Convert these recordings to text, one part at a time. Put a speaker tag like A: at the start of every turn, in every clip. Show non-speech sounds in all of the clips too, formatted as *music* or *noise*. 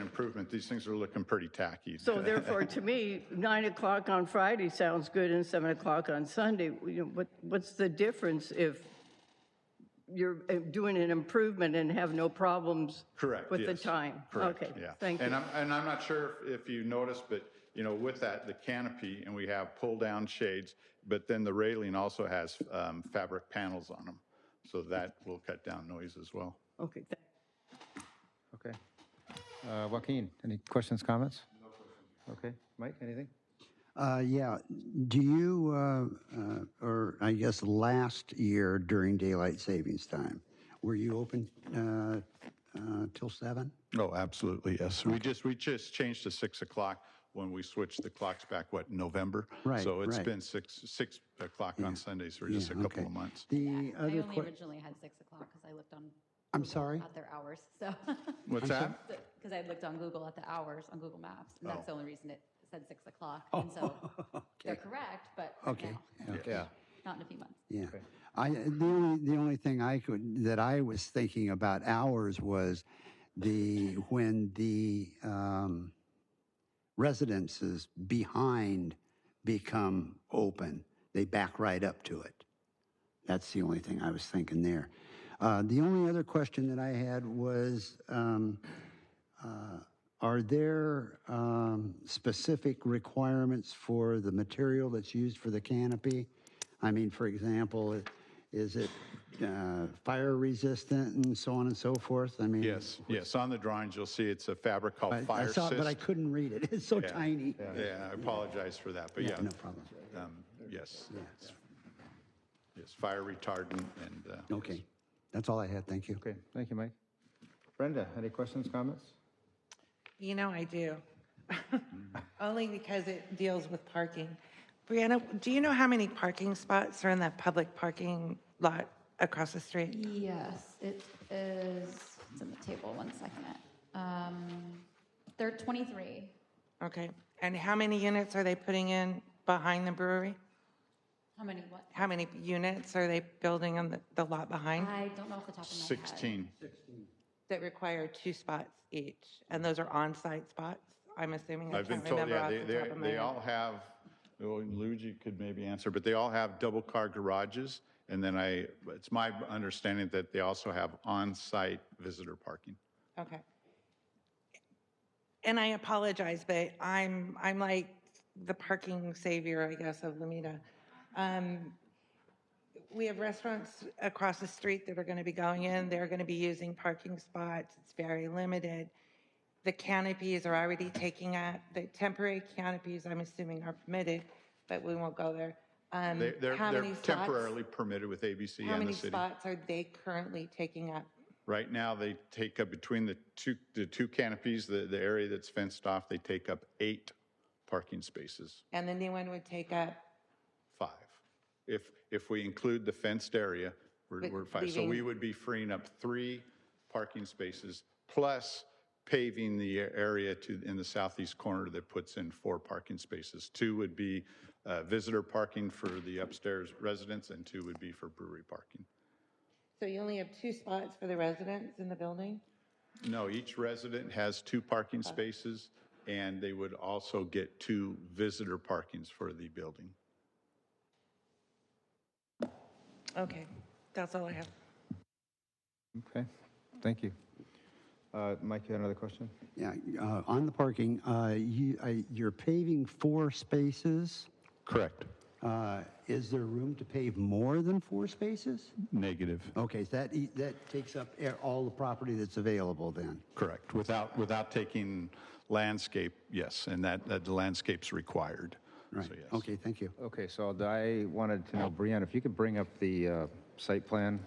A: improvement. These things are looking pretty tacky. *laughs*
B: So therefore, to me, 9 o'clock on Friday sounds good and 7 o'clock on Sunday. You know, what, what's the difference if you're uh, doing an improvement and have no problems?
A: Correct,
B: With the
A: yes.
B: time?
A: Correct,
B: Okay,
A: yeah.
B: thank
A: And
B: you.
A: I'm, and I'm not sure if if you noticed, but, you know, with that, the canopy, and we have pull-down shades, but then the railing also has um, fabric panels on them. So that will cut down noise as well.
B: Okay, thank
C: Okay. Uh, Joaquin, any questions, comments? No questions. Okay. Mike, anything?
D: Uh, yeah. Do you, uh, uh, or I guess last year during daylight savings time, were you open uh, uh, till seven?
A: Oh, absolutely, yes. We just, we just changed to 6 o'clock when we switched the clocks back, what, November?
D: Right,
A: So it's
D: right.
A: been 6, 6 o'clock on Sundays for just a
D: Yeah,
A: couple
D: okay.
A: of months.
D: The
E: I
D: other
E: only
D: question,
E: originally had six o'clock because I looked on.
D: I'm
E: Google
D: sorry?
E: At their hours, so. *laughs*
A: What's that?
E: Because I had looked on Google at the hours on Google Maps, and
D: Oh.
E: that's the only reason it said six o'clock. And so
D: *laughs*
E: they're correct, but
D: okay,
E: now,
D: okay.
E: not in a few months.
D: Yeah. I, the only, the only thing I could, that I was thinking about hours was the, when the um, residences behind become open, they back right up to it. That's the only thing I was thinking there. Uh, the only other question that I had was, um, uh, are there um, specific requirements for the material that's used for the canopy? I mean, for example, i- is it uh, fire resistant and so on and so forth? I mean,
A: Yes, yes. On the drawings, you'll see it's a fabric
D: I,
A: called
D: I
A: fire
D: saw it, but I
A: cyst.
D: couldn't read it. *laughs* It's so tiny.
A: Yeah, I apologize for that, but yeah.
D: No problem.
A: Um, Yes. it's- Yes, fire retardant and. uh,
D: Okay. That's all I had. Thank you.
C: Okay. Thank you, Mike. Brenda, any questions, comments?
F: You know I do.
A: Mm-hmm.
F: Only because it deals with parking. Brianna, do you know how many parking spots are in that public parking lot across the street?
E: Yes, it is, it's in the table, one second. Um, They're 23.
F: Okay. And how many units are they putting in behind the brewery?
E: How many, what?
F: How many units are they building on the, the lot behind
E: I don't know off the top of my head.
A: 16,
F: that require two spots each? And those are on-site spots, I'm assuming? I
A: I've been
F: can't
A: told,
F: remember
A: yeah,
F: off
A: they,
F: the
A: they,
F: top of my
A: they
F: head.
A: all have, well, Luigi could maybe answer, but they all have double-car garages. And then I, it's my understanding that they also have on-site visitor parking.
F: Okay. And I apologize, but I'm, I'm like the parking savior, I guess, of Lamita. Um, We have restaurants across the street that are going to be going in, they're going to be using parking spots, it's very limited. The canopies are already taking up, the temporary canopies, I'm assuming, are permitted, but we won't go there. Um,
A: They- They're,
F: how
A: they're
F: many spots-
A: temporarily permitted with ABC and
F: How
A: the
F: many
A: city.
F: spots are they currently taking up?
A: Right now, they take up between the two, the two canopies, the, the area that's fenced off, they take up eight parking spaces,
F: And the new one would take up
A: five. If, if we include the fenced area, we're, we're five. So we
F: leaving-
A: would be freeing up three parking spaces, plus paving the area to, in the southeast corner that puts in four parking spaces. Two would be uh, visitor parking for the upstairs residents, and two would be for brewery parking.
F: So you only have two spots for the residents in the building?
A: No, each resident has two parking spaces, and they would also get two visitor parkings for the building.
F: Okay, that's all I have.
C: Okay. Thank you. Uh, Mike, you had another question?
D: Yeah, uh, on the parking, uh, you, uh, you're paving four spaces.
A: Correct.
D: Uh, Is there room to pave more than four spaces?
A: Negative.
D: Okay, so that, e- that takes up a- all the property that's available then.
A: Correct. Without, without taking landscape, yes, and that, that the landscape's required.
D: Right,
A: So, yes.
D: okay, thank you.
C: Okay, so I wanted to know, Brianna, if you could bring up the uh, site plan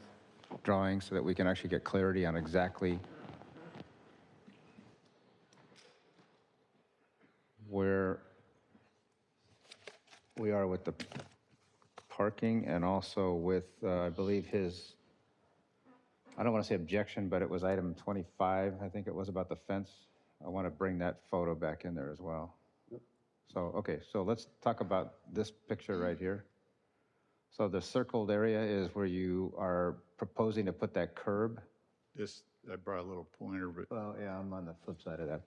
C: drawing so that we can actually get clarity on exactly where we are with the parking and also with, uh, I believe, his, I don't want to say objection, but it was item 25, I think it was about the fence. I want to bring that photo back in there as well. So, okay, so let's talk about this picture right here. So the circled area is where you are proposing to put that curb?
A: This, I brought a little pointer, but
C: Well, yeah, I'm on the flip side of that